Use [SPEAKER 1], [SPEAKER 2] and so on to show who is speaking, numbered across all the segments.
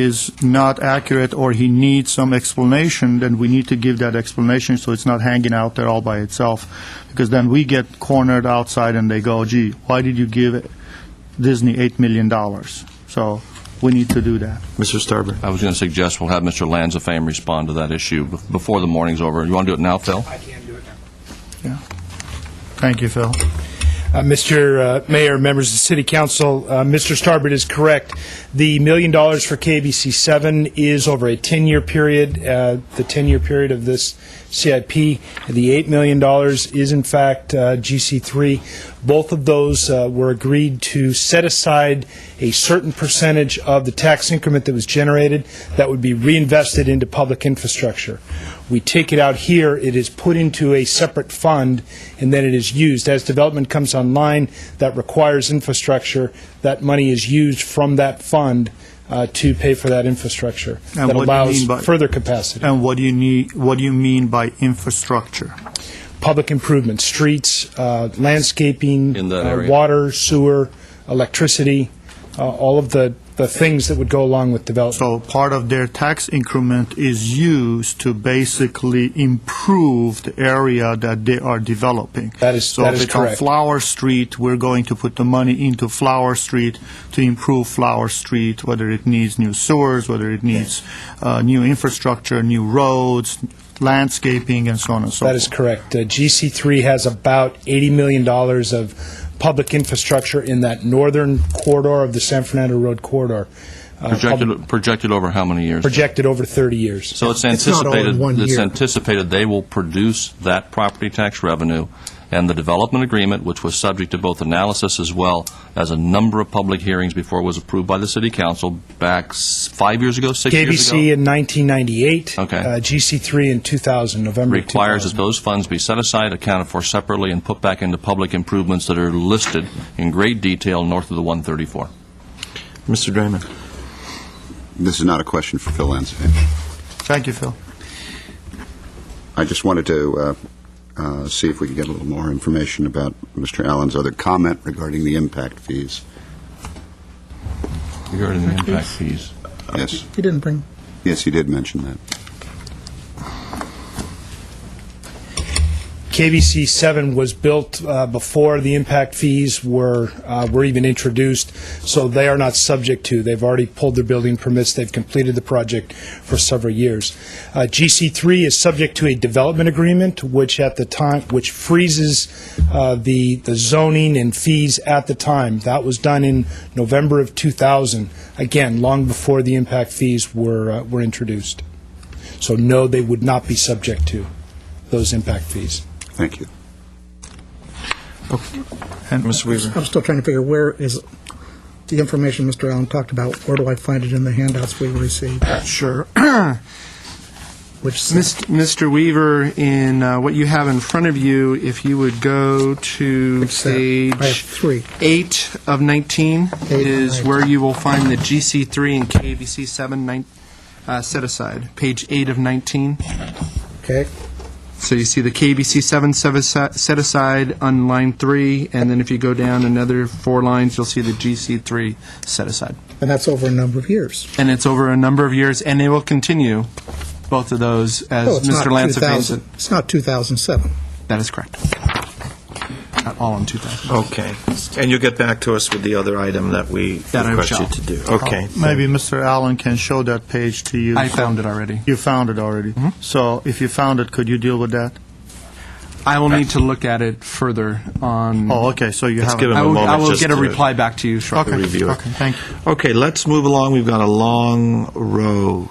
[SPEAKER 1] is not accurate or he needs some explanation, then we need to give that explanation so it's not hanging out there all by itself. Because then we get cornered outside and they go, gee, why did you give Disney $8 million? So we need to do that.
[SPEAKER 2] Mr. Starbird?
[SPEAKER 3] I was going to suggest we'll have Mr. Lanzafame respond to that issue bef- before the morning's over. You want to do it now, Phil?
[SPEAKER 4] I can do it now.
[SPEAKER 1] Yeah. Thank you, Phil.
[SPEAKER 4] Uh, Mr. uh, Mayor, members of the City Council, uh, Mr. Starbird is correct. The million dollars for KBC 7 is over a 10-year period, uh, the 10-year period of this CIP. The $8 million is in fact uh, GC3. Both of those uh, were agreed to set aside a certain percentage of the tax increment that was generated that would be reinvested into public infrastructure. We take it out here, it is put into a separate fund, and then it is used. As development comes online that requires infrastructure, that money is used from that fund uh, to pay for that infrastructure.
[SPEAKER 1] And
[SPEAKER 4] That
[SPEAKER 1] what do you
[SPEAKER 4] allows
[SPEAKER 1] mean by-
[SPEAKER 4] further capacity.
[SPEAKER 1] And what do you need, what do you mean by infrastructure?
[SPEAKER 4] Public improvements, streets, uh, landscaping.
[SPEAKER 3] In that
[SPEAKER 4] uh,
[SPEAKER 3] area.
[SPEAKER 4] Water, sewer, electricity, uh, all of the, the things that would go along with development.
[SPEAKER 1] So part of their tax increment is used to basically improve the area that they are developing.
[SPEAKER 4] That is- that is
[SPEAKER 1] So if it's on
[SPEAKER 4] correct.
[SPEAKER 1] Flower Street, we're going to put the money into Flower Street to improve Flower Street, whether it needs new sewers, whether it needs uh, new infrastructure, new roads, landscaping, and so on and so forth.
[SPEAKER 4] That is correct. Uh, GC3 has about $80 million of public infrastructure in that northern corridor of the San Fernando Road corridor. uh, public-
[SPEAKER 3] Projected, projected over how many years?
[SPEAKER 4] Projected over 30 years.
[SPEAKER 3] So it's
[SPEAKER 5] not all in
[SPEAKER 3] anticipated,
[SPEAKER 5] one
[SPEAKER 3] it's
[SPEAKER 5] year.
[SPEAKER 3] anticipated they will produce that property tax revenue, and the development agreement, which was subject to both analysis as well as a number of public hearings before it was approved by the city council back s- five years ago, six years ago?
[SPEAKER 4] KBC in 1998.
[SPEAKER 3] Okay.
[SPEAKER 4] uh, GC3 in 2000, November 2000.
[SPEAKER 3] requires that those funds be set aside, accounted for separately, and put back into public improvements that are listed in great detail north of the 134.
[SPEAKER 2] Mr. Draymond?
[SPEAKER 6] This is not a question for Phil Lanzafame.
[SPEAKER 1] Thank you, Phil.
[SPEAKER 6] I just wanted to uh, uh, see if we could get a little more information about Mr. Allen's other comment regarding the impact fees.
[SPEAKER 3] Regarding the impact fees.
[SPEAKER 6] Yes,
[SPEAKER 5] He didn't bring.
[SPEAKER 6] yes, he did mention that.
[SPEAKER 4] KBC 7 was built uh, before the impact fees were, uh, were even introduced, so they are not subject to. They've already pulled their building permits, they've completed the project for several years. Uh, GC 3 is subject to a development agreement, which at the time, which freezes uh, the the zoning and fees at the time. That was done in November of 2000, again, long before the impact fees were, uh, were introduced. So no, they would not be subject to those impact fees.
[SPEAKER 6] Thank you.
[SPEAKER 1] And
[SPEAKER 2] Mr. Weaver?
[SPEAKER 5] I'm still trying to figure where is the information Mr. Allen talked about, where do I find it in the handouts we received?
[SPEAKER 7] Sure.
[SPEAKER 5] Which,
[SPEAKER 7] Mist- Mr. Weaver, in uh, what you have in front of you, if you would go to
[SPEAKER 5] Fix that. I have
[SPEAKER 7] page
[SPEAKER 5] three.
[SPEAKER 7] eight of 19
[SPEAKER 5] Eight
[SPEAKER 7] is
[SPEAKER 5] of
[SPEAKER 7] where you will find the GC3 and KVC7 nine- uh, set aside, page eight of 19.
[SPEAKER 5] okay,
[SPEAKER 7] So you see the KBC 7 set asi- set aside on line 3, and then if you go down another four lines, you'll see the GC3 set aside.
[SPEAKER 5] and that's over a number of years.
[SPEAKER 7] And it's over a number of years, and it will continue, both of those,
[SPEAKER 5] Oh,
[SPEAKER 7] as
[SPEAKER 5] it's not
[SPEAKER 7] Mr. Lance
[SPEAKER 5] 2000 It's not 2007.
[SPEAKER 7] That is correct. Not all in 2000.
[SPEAKER 2] Okay. And you'll get back to us with the other item that we
[SPEAKER 7] That I
[SPEAKER 2] request you
[SPEAKER 7] shall.
[SPEAKER 2] to do. Okay.
[SPEAKER 1] Maybe Mr. Allen can show that page to you.
[SPEAKER 7] I found it already.
[SPEAKER 1] You found it already.
[SPEAKER 4] Mm-hmm.
[SPEAKER 1] So if you found it, could you deal with that?
[SPEAKER 7] I will need to look at it further on.
[SPEAKER 1] Oh, okay, so you
[SPEAKER 2] Let's
[SPEAKER 1] haven't.
[SPEAKER 2] give him
[SPEAKER 7] I
[SPEAKER 2] a
[SPEAKER 7] will, I
[SPEAKER 2] moment
[SPEAKER 7] will
[SPEAKER 2] just
[SPEAKER 7] get a
[SPEAKER 2] to-
[SPEAKER 7] reply back to you shortly.
[SPEAKER 1] Okay,
[SPEAKER 2] review it.
[SPEAKER 1] okay, thank you.
[SPEAKER 2] Okay, let's move along. We've got a long row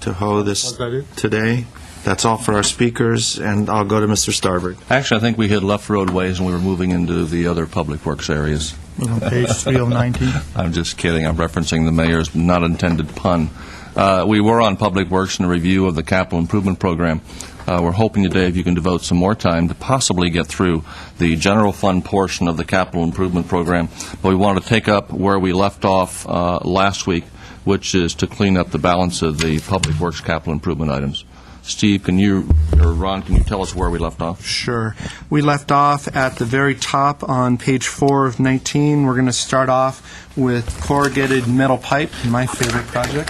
[SPEAKER 2] to hoe this today. That's all for our speakers, and I'll go to Mr. Starbird.
[SPEAKER 3] Actually, I think we had left roadways and we were moving into the other public works areas.
[SPEAKER 1] On page oh 3 of 19.
[SPEAKER 3] I'm just kidding. I'm referencing the mayor's not intended pun. Uh, we were on Public Works and a review of the capital improvement program. Uh, we're hoping today if you can devote some more time to possibly get through the general fund portion of the capital improvement program. But we want to take up where we left off uh, last week, which is to clean up the balance of the Public Works capital improvement items. Steve, can you, or Ron, can you tell us where we left off?
[SPEAKER 7] Sure. We left off at the very top on page four of 19. We're going to start off with corrugated metal pipe, my favorite project.